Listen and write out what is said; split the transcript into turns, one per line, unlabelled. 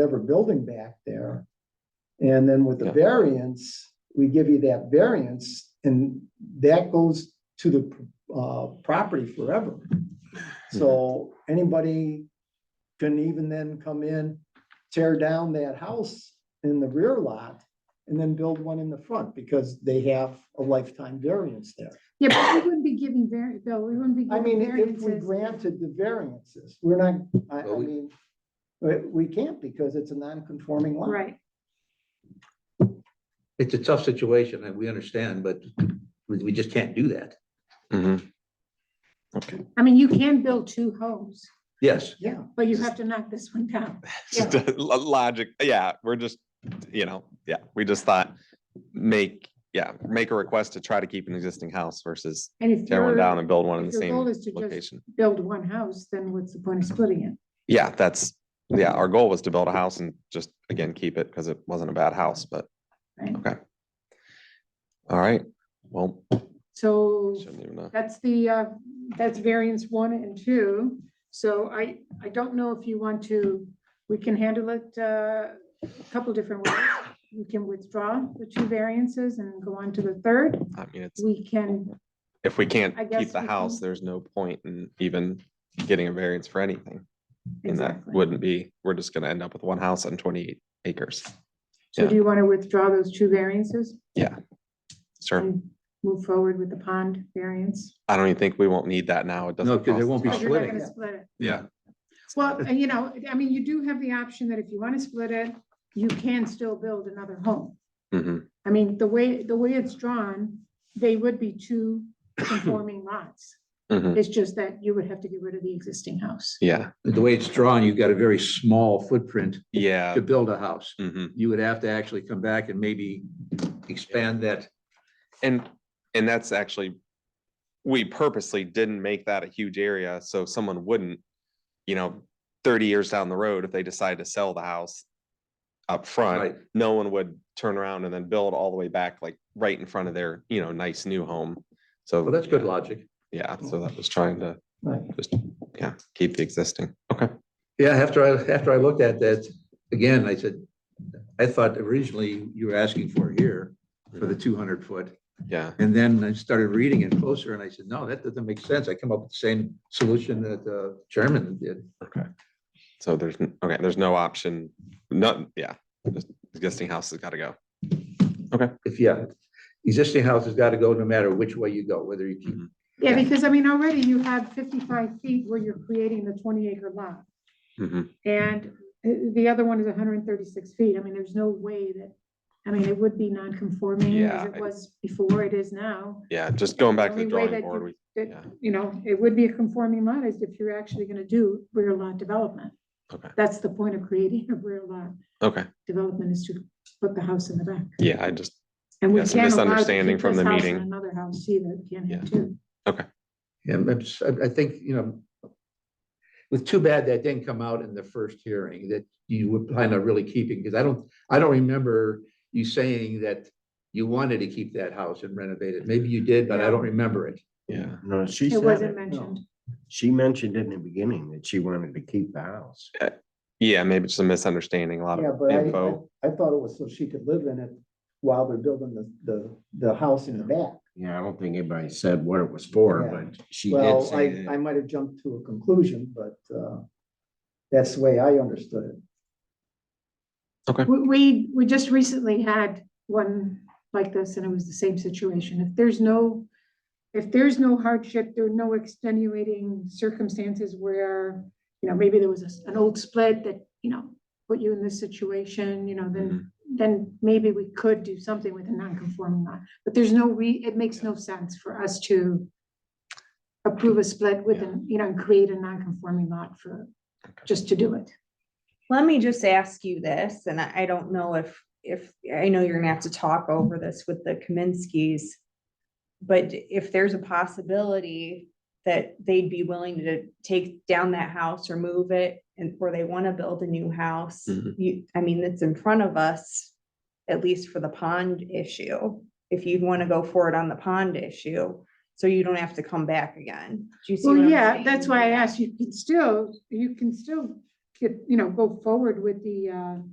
ever building back there. And then with the
Yeah.
variance, we give you that variance and that goes to the uh property forever. So
Hmm.
anybody can even then come in, tear down that house in the rear lot and then build one in the front because they have a lifetime variance there.
Yeah, but we wouldn't be giving vari, Bill, we wouldn't be
I mean,
giving
if we
variances.
granted the variances, we're not, I, I
Well, we-
mean, we, we can't because it's a non-conforming lot.
Right,
It's a tough situation and we understand, but we, we just can't do that.
Mhm.
I mean, you can build two homes,
Yes,
Yeah,
but you have to knock this one down.
Just the lo- Logic, yeah, we're just, you know, yeah, we just thought, make, yeah, make a request to try to keep an existing house versus
And if
tear one down
you're,
and build one in the
if your goal
same
is to just
location. Mm-hmm.
build one house, then what's the point of splitting it?
Yeah, that's, yeah, our goal was to build a house and just, again, keep it because it wasn't a bad house, but,
Right.
okay. All right, well,
So
shouldn't even know.
that's the, uh, that's variance one and two. So I, I don't know if you want to, we can handle it, uh, a couple different ways. We can withdraw the two variances and go on to the third.
I mean, it's,
We can,
if we can't
I guess
keep the
we
house,
can-
there's no point in even getting a variance for anything. And that
exactly.
wouldn't be, we're just gonna end up with one house on twenty-eight acres.
So
yeah.
do you want to withdraw those two variances?
Yeah. Sure.
and move forward with the pond variance.
I don't even think we won't need that now. It doesn't.
No, 'cause
cost
it won't
us
be
much.
Oh, You're not
splitting.
gonna split it.
Yeah,
Well, and you know, I mean, you do have the option that if you want to split it, you can still build another home.
mhm,
I mean, the way, the way it's drawn, they would be two conforming lots.
mhm,
It's just that you would have to get rid of the existing house.
yeah,
the way it's drawn, you've got a very small footprint
yeah.
to build a house.
mhm.
You would have to actually come back and maybe expand that.
And, and that's actually, we purposely didn't make that a huge area, so someone wouldn't, you know, thirty years down the road, if they decide to sell the house up front,
Right.
no one would turn around and then build all the way back, like, right in front of their, you know, nice new home. So.
Well, that's good
yeah,
logic.
Yeah, so that was trying to
right.
just, yeah, keep the existing. Okay.
Yeah, after I, after I looked at that, again, I said, I thought originally you were asking for here for the two hundred foot.
Yeah,
And then I started reading it closer and I said, no, that doesn't make sense. I come up with the same solution that the chairman did.
okay. So there's, n- okay, there's no option, not, yeah, this existing house has got to go.
If, yeah, existing house has got to go no matter which way you go, whether you keep
Yeah, because I mean, already you have fifty-five feet where you're creating the twenty acre lot.
Mhm.
And uh, the other one is hundred and thirty-six feet. I mean, there's no way that, I mean, it would be non-conforming
Yeah,
as it
I-
was before, it is now.
Yeah, just going back to the
only way
drawing
that
board,
you-
we,
That,
Yeah.
you know, it would be a conforming lot is if you're actually gonna do rear lot development.
Okay.
That's the point of creating a rear lot
okay,
development is to put the house in the back.
yeah, I just,
And we
Yeah,
can't
some
allow to
misunderstanding
keep
from
this
the
house and
meeting.
Another house either, you can't
Yeah.
have two.
Yeah, I'm s- I, I think, you know, it's too bad that didn't come out in the first hearing that you would plan on really keeping, because I don't, I don't remember you saying that you wanted to keep that house and renovate it. Maybe you did, but I don't remember it.
yeah,
No, she
It
said
wasn't
it.
mentioned.
She mentioned in the beginning that she wanted to keep the house.
yeah, maybe it's a misunderstanding, a lot
Yeah,
of
but I,
info.
I- I thought it was so she could live in it while they're building the, the, the house in the back.
Yeah, I don't think anybody said what it was for,
Yeah.
but she did
Well,
say
I, I
that.
might have jumped to a conclusion, but, uh, that's the way I understood it.
We, we, we just recently had one like this and it was the same situation. If there's no, if there's no hardship, there are no extenuating circumstances where, you know, maybe there was a s- an old split that, you know, put you in this situation, you know, then, then maybe we could do something with a non-conforming lot. But there's no re, it makes no sense for us to approve a split with, an you know, and create a non-conforming lot for, just to do it.
Let me just ask you this, and I, I don't know if, if, I know you're gonna have to talk over this with the Kaminsky's. But if there's a possibility that they'd be willing to take down that house or move it and, or they wanna build a new house.
Mhm.
You, I mean, it's in front of us, at least for the pond issue, if you'd wanna go for it on the pond issue. So you don't have to come back again. Do you see?
Well,
what I'm
yeah,
saying?
that's why I asked, you can still, you can still get, you know, go forward with the, uh,